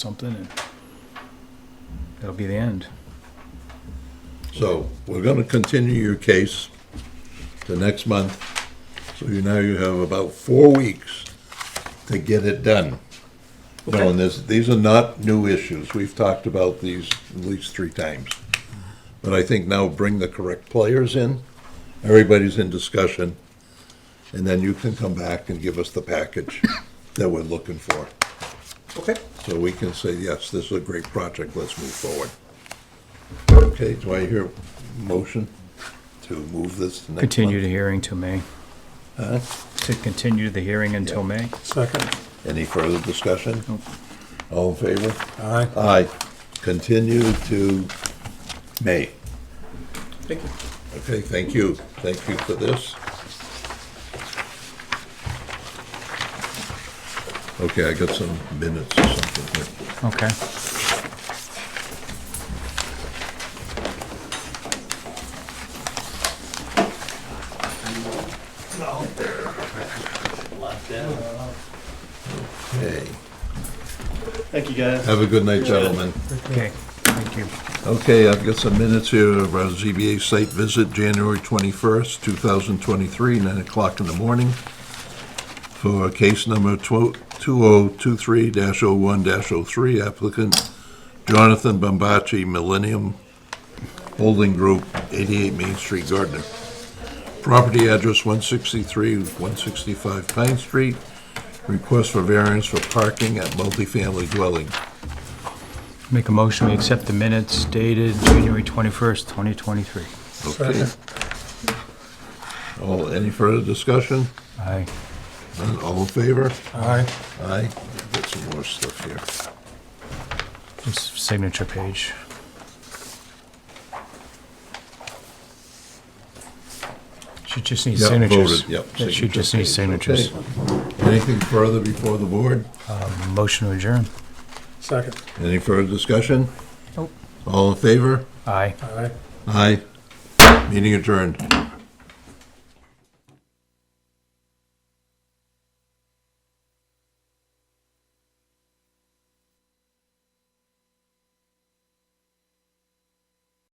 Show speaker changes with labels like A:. A: something and that'll be the end.
B: So we're gonna continue your case to next month. So you now you have about four weeks to get it done. Knowing this, these are not new issues. We've talked about these at least three times. But I think now bring the correct players in, everybody's in discussion, and then you can come back and give us the package that we're looking for.
C: Okay.
B: So we can say, yes, this is a great project, let's move forward. Okay, do I hear a motion to move this to next month?
A: Continue the hearing to May. To continue the hearing until May.
C: Second.
B: Any further discussion?
A: Nope.
B: All in favor?
C: Aye.
B: Aye. Continue to May.
C: Thank you.
B: Okay, thank you. Thank you for this. Okay, I got some minutes or something here.
A: Okay.
B: Hey,
D: Thank you, guys.
B: have a good night, gentlemen.
A: Okay. Thank you.
B: Okay, I've got some minutes here of our ZBA site visit, January 21st, 2023, 9 o'clock in the morning, for case number oh 12- 2023-01-03, applicant Jonathan Bombachi, Millennium Holding Group, 88 Main Street, Gardner. Property address 163, 165 Pine Street, request for variance for parking at multifamily dwelling.
A: Make a motion, we accept the minutes dated January 21st, 2023.
B: Okay. All, any further discussion?
A: Aye.
B: None? All in favor?
C: Aye.
B: Aye. Got some more stuff here.
A: This signature page. She just needs
B: Yep,
A: signatures.
B: voted, yep,
A: That She just
B: signature
A: needs
B: page,
A: signatures.
B: Okay. Anything further before the board?
A: Motion to adjourn.
C: Second.
B: Any further discussion?
A: Nope.
B: All in favor?
A: Aye.
C: Aye.
B: Aye. Meeting adjourned.